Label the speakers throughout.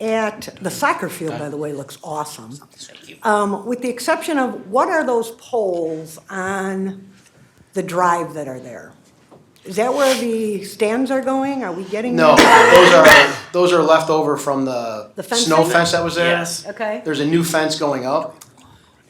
Speaker 1: at, the soccer field, by the way, looks awesome. Um, With the exception of, what are those poles on the drive that are there? Is that where the stands are going? Are we getting?
Speaker 2: No,
Speaker 1: them?
Speaker 2: those are, those are left over from the
Speaker 1: The fencing?
Speaker 2: snow fence that was there.
Speaker 3: Yes.
Speaker 1: Okay.
Speaker 2: There's a new fence going up.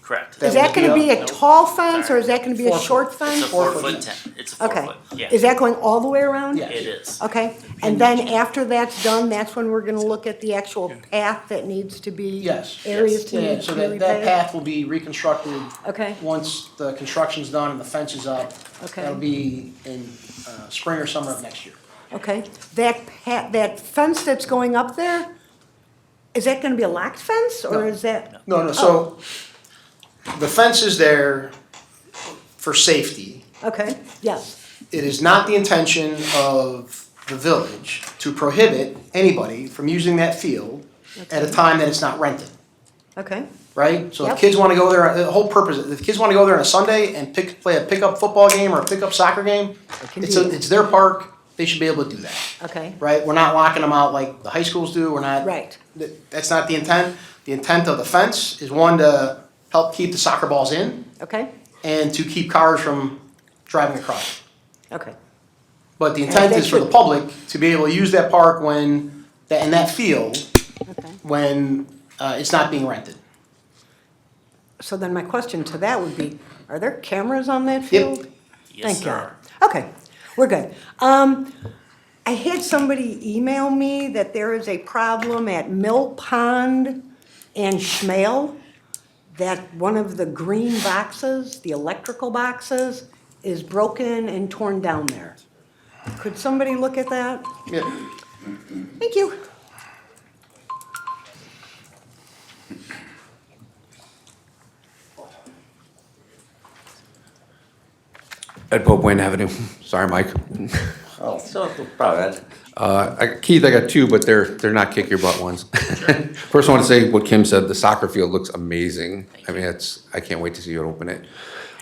Speaker 3: Correct.
Speaker 1: Is
Speaker 2: that
Speaker 1: that
Speaker 2: would
Speaker 1: gonna
Speaker 2: be
Speaker 1: be
Speaker 2: up-
Speaker 1: a tall fence or is that gonna be a short
Speaker 3: It's a
Speaker 1: fence?
Speaker 3: four foot ten, it's a four
Speaker 1: Okay.
Speaker 3: foot, yeah.
Speaker 1: Is that Oh, going all the way around?
Speaker 2: Yeah.
Speaker 3: It is.
Speaker 1: Okay, and then after that's done, that's when we're gonna look at the actual path that needs to be.
Speaker 2: Yes.
Speaker 1: Areas to
Speaker 2: Yeah,
Speaker 1: need
Speaker 2: so
Speaker 1: to be
Speaker 2: that, that
Speaker 1: repaved?
Speaker 2: path will be reconstructed.
Speaker 1: Okay.
Speaker 2: Once the construction's done and the fence is up.
Speaker 1: Okay.
Speaker 2: That'll be in, uh, spring or summer of next year.
Speaker 1: Okay, that pa, that fence that's going up there, is that gonna be a locked fence or
Speaker 2: No.
Speaker 1: is that?
Speaker 2: No, no, so the fence is there for safety.
Speaker 1: Okay, yes,
Speaker 2: It is not the intention of the village to prohibit anybody from using that field at a time that it's not rented.
Speaker 1: okay,
Speaker 2: right? So
Speaker 1: Yep.
Speaker 2: if kids want to go there, the whole purpose, if kids want to go there on a Sunday and pick, play a pickup football game or a pickup soccer game,
Speaker 1: can
Speaker 2: it's,
Speaker 1: do
Speaker 2: a,
Speaker 1: that.
Speaker 2: it's their park, they should be able to do that,
Speaker 1: okay,
Speaker 2: right? We're not locking them out like the high schools do, we're not.
Speaker 1: Right.
Speaker 2: th- That's not the intent. The intent of the fence is one, to help keep the soccer balls in
Speaker 1: okay,
Speaker 2: and to keep cars from driving across.
Speaker 1: okay,
Speaker 2: But the intent
Speaker 1: they
Speaker 2: is for the
Speaker 1: should-
Speaker 2: public to be able to use that park when, that- and that field,
Speaker 1: okay.
Speaker 2: when uh, it's not being rented.
Speaker 1: So then my question to that would be, are there cameras on that field?
Speaker 3: Yes,
Speaker 1: Thank
Speaker 3: sir.
Speaker 1: God. Okay, we're good. Um, I had somebody email me that there is a problem at Mill Pond and Schmale, that one of the green boxes, the electrical boxes, is broken and torn down there. Could somebody look at that?
Speaker 2: Yeah.
Speaker 1: Thank you.
Speaker 4: At Pope Wayne Avenue. Sorry, Mike.
Speaker 5: Oh, so proud.
Speaker 4: Uh, I- Keith, I got two, but they're, they're not kick your butt ones. First, I want to say what Kim said, the soccer field looks amazing. I mean, it's, I can't wait to see you open it.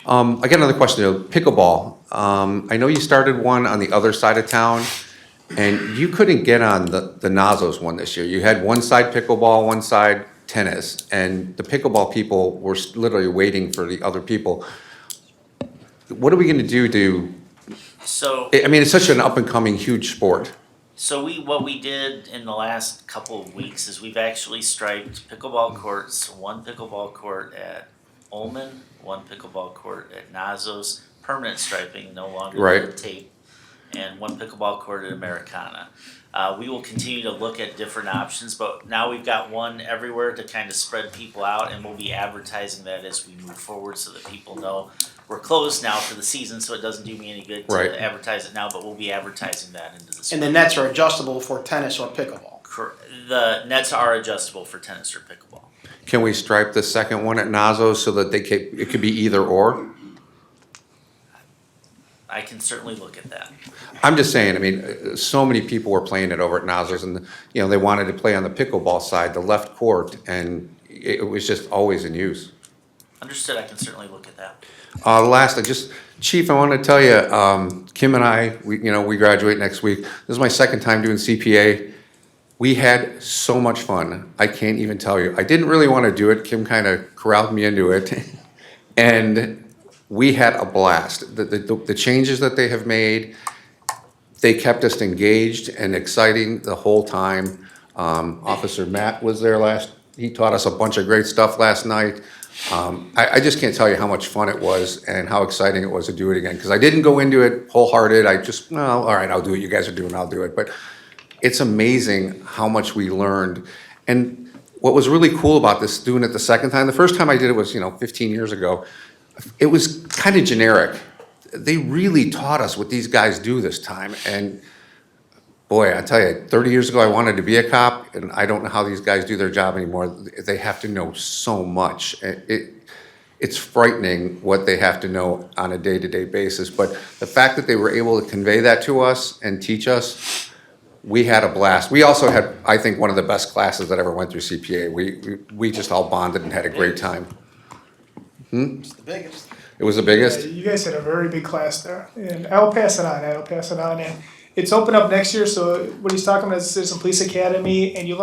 Speaker 4: Um, I got another question, though. pickleball. Um, I know you started one on the other side of town, and you couldn't get on the, the Nazos one this year. You had one side pickleball, one side tennis, and the pickleball people were s- literally waiting for the other people. What are we going to do to
Speaker 3: So,
Speaker 4: I I mean, it's such an up and coming huge sport.
Speaker 3: so we, what we did in the last couple of weeks is we've actually striped pickleball courts, one pickleball court at Olman, one pickleball court at Nazos, permanent striping, no longer
Speaker 4: Right.
Speaker 3: the tape, and one pickleball court at Americana. Uh, we will continue to look at different options, but now we've got one everywhere to kind of spread people out, and we'll be advertising that as we move forward so that people know we're closed now for the season, so it doesn't do me any good to
Speaker 4: Right.
Speaker 3: advertise it now, but we'll be advertising that into the spring.
Speaker 2: And the nets are adjustable for tennis or pickleball.
Speaker 3: Cor- the nets are adjustable for tennis or pickleball.
Speaker 4: Can we stripe the second one at Nazo so that they ca it could be either or?
Speaker 3: I can certainly look at that.
Speaker 4: I'm just saying, I mean, uh, so many people were playing it over at Nazo's and, you know, they wanted to play on the pickleball side, the left court, and it it was just always in use.
Speaker 3: Understood. I can certainly look at that.
Speaker 4: Uh, last, I just, Chief, I want to tell you, um, Kim and I, we, you know, we graduate next week. This is my second time doing CPA. We had so much fun. I can't even tell you. I didn't really want to do it. Kim kind of corralled me into it. and we had a blast. The, the, the changes that they have made, they kept us engaged and exciting the whole time. Um, Officer Matt was there last, he taught us a bunch of great stuff last night. Um, I, I just can't tell you how much fun it was and how exciting it was to do it again, because I didn't go into it wholehearted, I just, no, all right, I'll do what you guys are doing, I'll do it, but it's amazing how much we learned. And what was really cool about this, doing it the second time, the first time I did it was, you know, fifteen years ago, it was kind of generic. They really taught us what these guys do this time, and boy, I tell you, 30 years ago, I wanted to be a cop, and I don't know how these guys do their job anymore. They have to know so much. It, it- it's frightening what they have to know on a day-to-day basis. But the fact that they were able to convey that to us and teach us, we had a blast. We also had, I think, one of the best classes that ever went through CPA. We, we- we just all bonded and had a great time.
Speaker 2: It's the biggest.
Speaker 4: It was the biggest.
Speaker 6: Yeah, you guys had a very big class there, and I'll pass it on. I'll pass it on, and it's open up next year. So what he's talking about is there's a police academy, and you